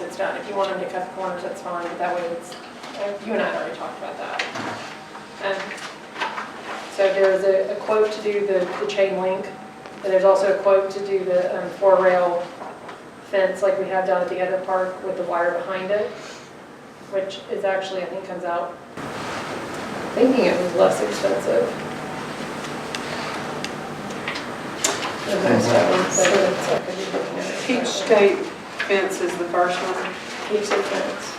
it's done. If you want them to cut the corners, that's fine, but that way it's, uh, you and I already talked about that. Um, So there is a a quote to do the, the chain link, and there's also a quote to do the um, four rail fence like we have down at the other park with the wire behind it, which is actually, I think, comes out, thinking it was less expensive. than most of them, so I could be looking at it. Peach State fence is the first one. Peach state fence.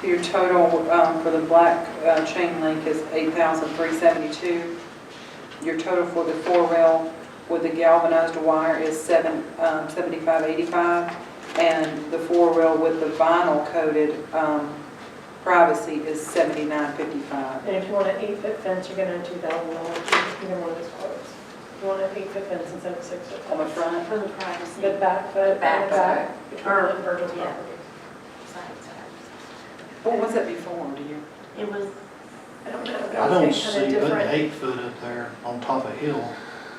So Your total um, for the black uh, chain link is 8,372. Your total for the four rail with the galvanized wire is seven um, 7585. And the four rail with the vinyl coated um, privacy is 7955. And if you want an eight-foot fence, you're gonna have two thousand dollars, either one of those quotes. You want an eight-foot fence instead of a six-foot On the fence. front, For the privacy. The back foot, and the Back back, between Or- the Virgil's yeah. property. sides are- what was it before, do you? It was, I don't know. I don't it's kinda see putting different. eight foot up there on top of hill.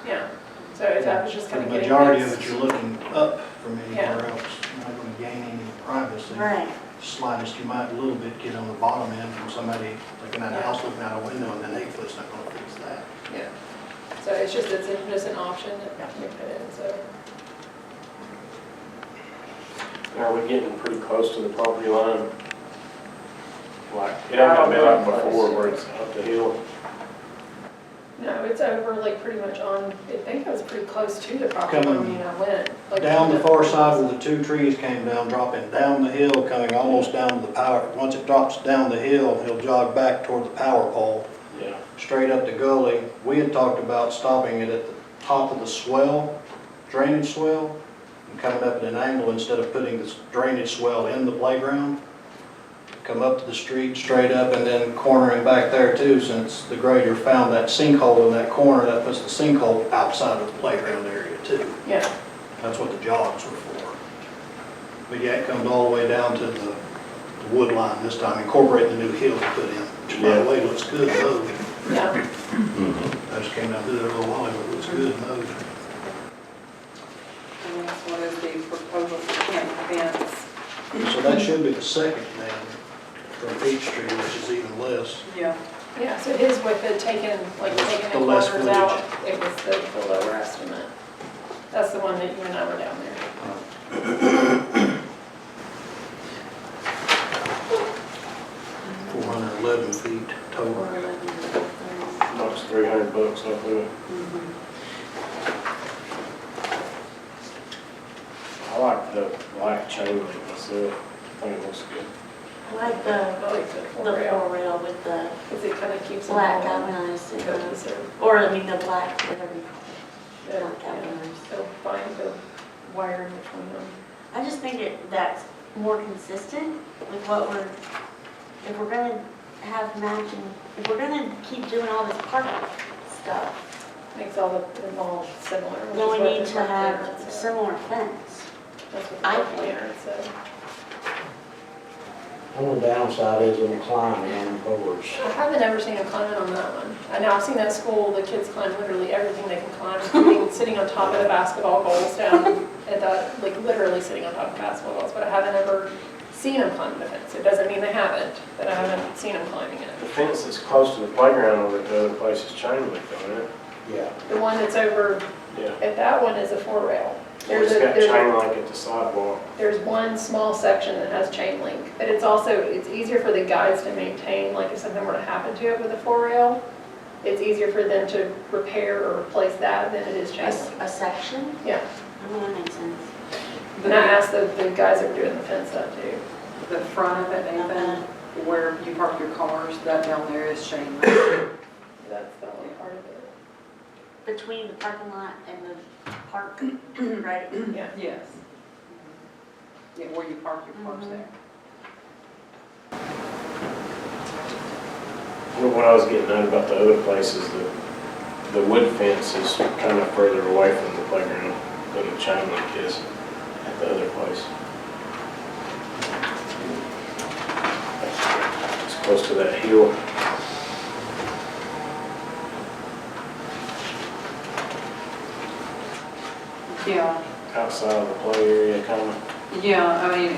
Yeah, so it's- I was just The kind of getting. majority of this. it, you're looking up from Yeah. anywhere else. You're not gonna gain any privacy. right, Slightest, you might a little bit get on the bottom end from somebody looking at a house, looking out a window, and then eight foot's not gonna fix that. Yeah. So it's just, it's a- just an option that we put in, so. Are we getting pretty close to the property line? Like, it ain't gonna be like before where it's up the hill. No, it's over like pretty much on, I think it was pretty close to the property Coming line when I went. like, Down the far side where the two trees came down, dropping down the hill, coming almost down to the power. Once it drops down the hill, he'll jog back toward the power pole. Yeah. straight up the gully. We had talked about stopping it at the top of the swell, drainage swell, and coming up at an angle instead of putting this drainage swell in the playground. Come up to the street straight up and then cornering back there too, since the grader found that sinkhole in that corner, that puts the sinkhole outside of the playground area too. Yeah, That's what the jogs were for. But yeah, it comes all the way down to the the wood line this time, incorporating the new hill we put in, which by the way, looks good though. yeah. I just came down through there a little while ago, it was good mode. And that's what is the proposal for camp fence. So that should be the second then, from Peachtree, which is even less. Yeah. Yeah, so his with the taken, like With taking the the less corners out, it was the the lower estimate. That's the one that you and I were down there. Four hundred eleven feet total. or eleven. Knocks three hundred bucks off of it. I like the black chain link myself. I think it looks good. I like the, I like the the four rail, four rail with the because it kind of keeps them black all galvanized, you know, cohesive. or I mean the black, whatever you call it, Yeah, not uh, yeah. galvanized. So find the wire in between them. I just think it, that's more consistent with what we're, if we're gonna have matching, if we're gonna keep doing all this park stuff, Makes all the, them all similar. which is then we what need the to front have clearance is. similar fence. That's what the I front think. clearance is. Only downside is it'll climb on boards. I haven't ever seen a climb on that one. I know, I've seen that school, the kids climb literally everything they can climb, including sitting on top of the basketball goals down at that, like literally sitting on top of basketball goals, but I haven't ever seen them climb the fence. It doesn't mean they haven't, but I haven't seen them climbing it. The fence is close to the playground over at the other place is chain link, isn't it? Yeah, The one that's over, Yeah. at that one is a four rail. There's It's a, got there's a chain link at the sidewalk. there's one small section that has chain link, but it's also, it's easier for the guys to maintain, like if something were to happen to it with a four rail, it's easier for them to repair or replace that than it is A chain s- link. a section, Yeah, I don't know, that makes sense. and I asked the, the guys that were doing the fence stuff too. The front of it, Nathan, where you park your cars, that down there is chain link. That's the only part of it. Between the parking lot and the park, right? Yeah. Yes. Mm-hmm. Yeah, where you park your cars there. Well, What I was getting at about the other place is the, the wood fence is kind of further away from the playground than the chain link is at the other place. It's close to that hill. Yeah, outside of the play area, kind of yeah, I mean,